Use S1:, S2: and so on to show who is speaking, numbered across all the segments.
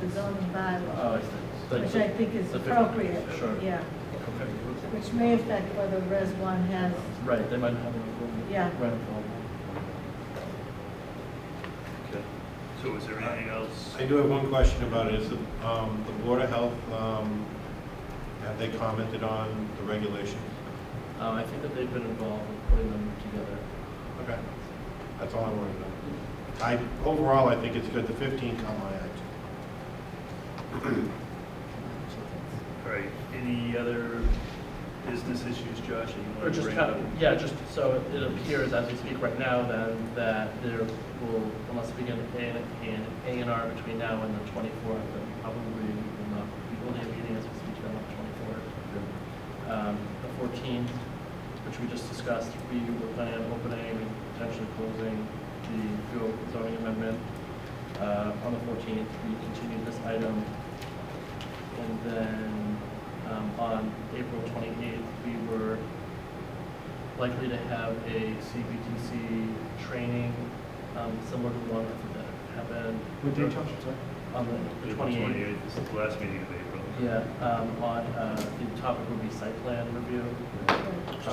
S1: the zoning bylaw,
S2: Oh, I see.
S1: which I think is
S2: The fifty,
S1: appropriate,
S2: sure.
S1: yeah.
S2: Okay.
S1: Which may affect whether Res One has,
S2: Right, they might have a.
S1: Yeah.
S2: Rental. Okay.
S3: So is there anything else?
S4: I do have one question about it, is the, um, the Board of Health, um, have they commented on the regulations?
S2: Um, I think that they've been involved in putting them together.
S4: Okay. That's all I wanted to know. I, overall, I think it's good, the fifteen caught my eye.
S3: All right, any other business issues, Josh, that you
S2: Or
S3: want to
S2: just,
S3: bring
S2: kind
S3: up?
S2: of- yeah, just, so it appears as we speak right now then, that there will, unless we get an, an A and R between now and the twenty-fourth, then probably we will not, we will have a meeting as we speak on the twenty-fourth. Um, the fourteenth, which we just discussed, we were planning on opening and potentially closing the Go zoning amendment. Uh, on the fourteenth, we continued this item and then um, on April 28th, we were likely to have a CBTC training um, similar to the one that happened. On the- the
S3: April
S2: 28th.
S3: twenty-eighth, this is the last meeting of April.
S2: Yeah, um, on, uh, the topic would be site plan review. um, Since we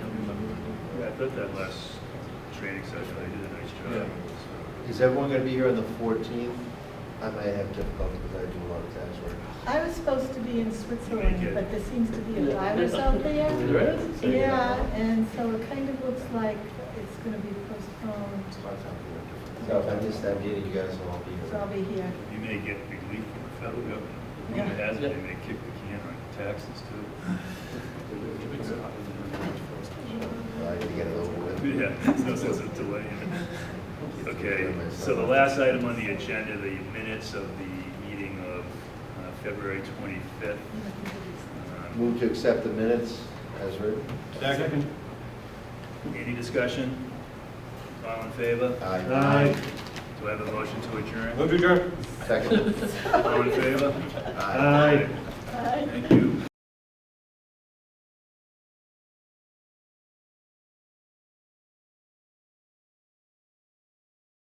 S2: don't
S3: Yeah,
S2: remember.
S3: I thought that last training session, I did a nice job. so.
S5: Is everyone going to be here on the 14th? I might have difficulty because I do a lot of tax work.
S1: I was supposed to be in Switzerland, but there seems to be a
S2: Yeah.
S1: virus out there.
S2: There is?
S1: Yeah, and so it kind of looks like it's gonna be postponed,
S5: So if I miss that meeting, you guys will all be
S1: so I'll
S5: here.
S1: be here.
S3: You may get relief from the federal government. Who
S1: Yeah.
S3: has it,
S2: Yeah.
S3: they may kick the can on taxes
S5: So I need to get it over with.
S3: too. Yeah, there's no sense of delaying it. Okay, so the last item on the agenda, the minutes of the meeting of uh, February twenty-fifth. Uh,
S5: Move to accept the minutes as written.
S4: Second?
S3: Any discussion? All in favor?
S5: Aye.
S3: Do I have a motion to adjourn?
S4: Move to adjourn.
S5: Second.
S3: All in favor?
S5: Aye.
S3: Thank you.